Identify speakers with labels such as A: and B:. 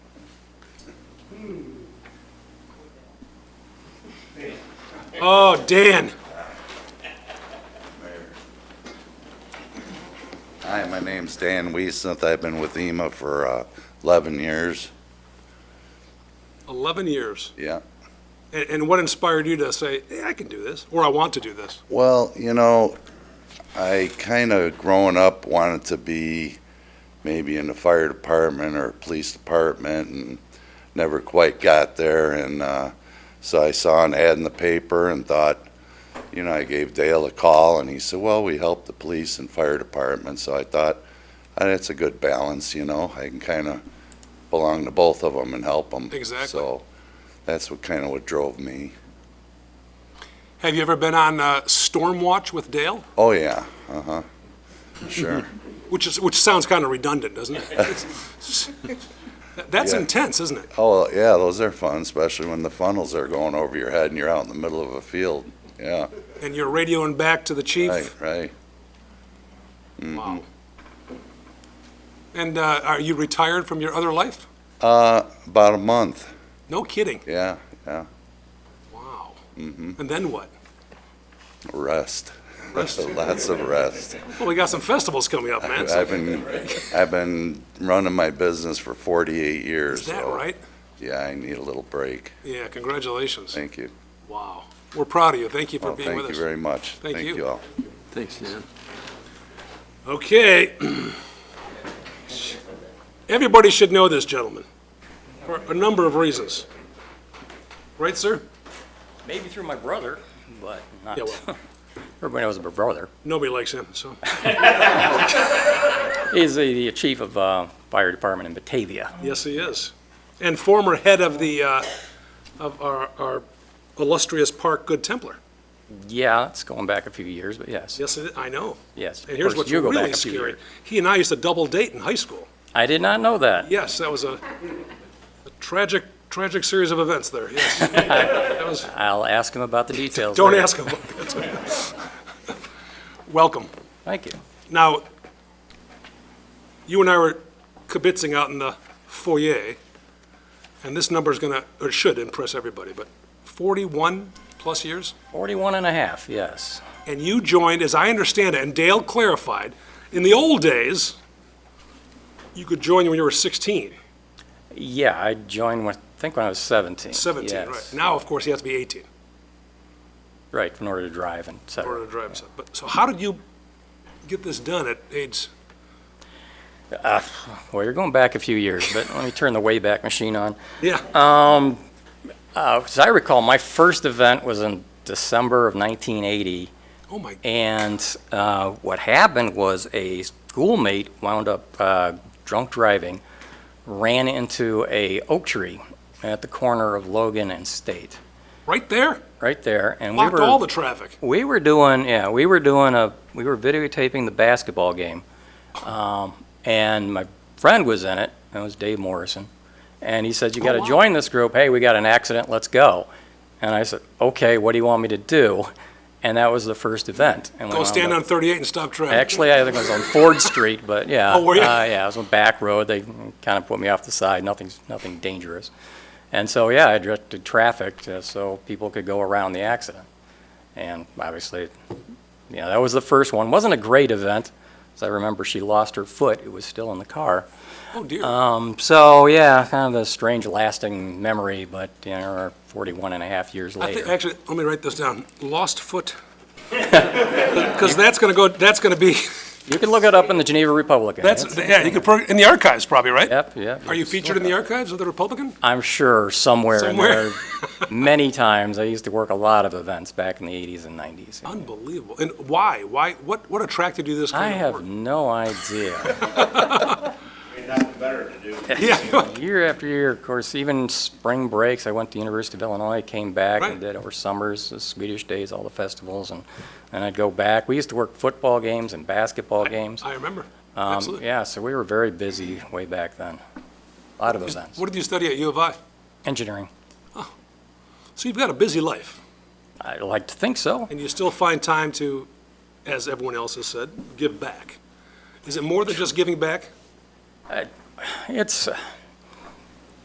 A: Oh, Dan.
B: Hi, my name's Dan Weesmith. I've been with EMA for uh, 11 years.
A: 11 years.
B: Yeah.
A: And, and what inspired you to say, hey, I can do this, or I want to do this?
B: Well, you know, I kind of growing up wanted to be maybe in the fire department or police department and never quite got there. And uh, so I saw an ad in the paper and thought, you know, I gave Dale a call and he said, well, we help the police and fire department. So I thought, "Ah, that's a good balance, you know, I can kind of belong to both of them and help them.
A: Exactly.
B: So that's what kind of what drove me.
A: Have you ever been on uh, Storm Watch with Dale?
B: Oh, yeah, uh-huh, sure.
A: Which is, which sounds kind of redundant, doesn't it? That's
B: Yeah.
A: intense, isn't it?
B: Oh, yeah, those are fun, especially when the funnels are going over your head and you're out in the middle of a field. Yeah,
A: And you're radioing back to the
B: right,
A: chief?
B: right.
A: Wow.
B: Mm-hmm.
A: And uh, are you retired from your other life?
B: Uh, about a month.
A: No kidding?
B: Yeah, Mm-hmm. yeah.
A: Wow. And then what?
B: Rest.
A: Rest.
B: Lots of rest.
A: Well, we got some festivals coming up, man. so-
B: I've been, I've been running my business for 48 years.
A: Is that
B: so,
A: right?
B: Yeah, I need a little break.
A: Yeah, congratulations.
B: Thank you.
A: Wow. We're proud of you. Thank you for
B: Well,
A: being
B: thank
A: with
B: you
A: us.
B: very much.
A: Thank you.
B: all.
C: Thanks, Dan.
A: Okay. Everybody should know this gentleman for a number of reasons. Right, sir?
D: Maybe through my brother, but not.
A: Yeah, well,
D: Everybody knows my brother.
A: nobody likes him, so.
D: He's the, the chief of uh, fire department in Batavia.
A: Yes, he is. And former head of the, uh, of our our illustrious park, Good Templar.
D: Yeah, it's going back a few years, but yes,
A: Yes, it- I know.
D: yes.
A: And here's
D: Of course,
A: what's
D: you go back
A: really
D: a few
A: scary.
D: years.
A: He and I used to double date in high school.
D: I did not know that.
A: Yes, that was a a tragic, tragic series of events there, yes. That was
D: I'll ask him about the details.
A: Don't
D: later.
A: ask him. Welcome.
D: Thank you.
A: Now, you and I were kibitzing out in the foyer, and this number's gonna, or should impress everybody, but 41-plus years?
D: 41 and a half, yes.
A: And you joined, as I understand it, and Dale clarified, in the old days, you could join when you were 16,
D: Yeah, I joined when, I think when I was 17.
A: 17, right?
D: yes.
A: Now, of course, you have to be 18
D: Right, in order to drive and et
A: in
D: cetera.
A: order to drive. So- But, so how did you get this done at age,
D: Ah, Well, you're going back a few years, but let me turn the Wayback Machine on.
A: yeah,
D: Uh, As I recall, my first event was in December of 1980,
A: oh my
D: And uh, what happened was a schoolmate wound up uh, drunk driving, ran into a oak tree at the corner of Logan and State,
A: Right there?
D: right there. And we
A: Blocked
D: were
A: all the traffic.
D: we were doing yeah we were doing a we were videotaping the basketball game, um, and my friend was in it. That was Dave Morrison, and he said you got to
A: Oh, wow.
D: join this group. Hey, we got an accident. Let's go. And I said, okay, what do you want me to do? And that was the first event. And we
A: Go
D: wound
A: stand
D: up-
A: on 38 and stop traffic.
D: Actually, I think it was on Ford Street, but yeah.
A: Oh, were you?
D: uh, yeah, I was on back road. They kind of put me off the side. Nothing's nothing dangerous. And so yeah, I directed traffic uh, so people could go around the accident. And obviously, yeah, that was the first one. wasn't a great event, as I remember. She lost her foot. It was still in the car.
A: Oh, dear.
D: Um, so yeah, kind of a strange, lasting memory. But you know, 41 and a half years
A: I think,
D: later.
A: actually, let me write this down. Lost foot. Because that's going to go, that's going to be,
D: you can look it up in the Geneva Republican.
A: that's,
D: It's-
A: yeah, you could, pro- in the archives probably, right?
D: Yep, yep.
A: Are you
D: It's still
A: featured in the archives of the Republican?
D: I'm sure somewhere in
A: Somewhere.
D: there, many times. I used to work a lot of events back in the 80s and 90s.
A: Unbelievable. And why? Why, what, what attracted you to this
D: I
A: kind of
D: have
A: work?
D: no idea.
A: Yeah,
D: year after year, of course, even spring breaks, I went to University of Illinois, came back
A: Right.
D: and did over summers, the Swedish days, all the festivals, and then I'd go back. We used to work football games and basketball games.
A: I remember.
D: Um,
A: Absolutely.
D: Yeah, so we were very busy way back then. A lot of events.
A: What did you study at U of I?
D: Engineering.
A: So you've got a busy life,
D: I like to think so.
A: and you still find time to, as everyone else has said, give back. Is it more than just giving back?
D: It's,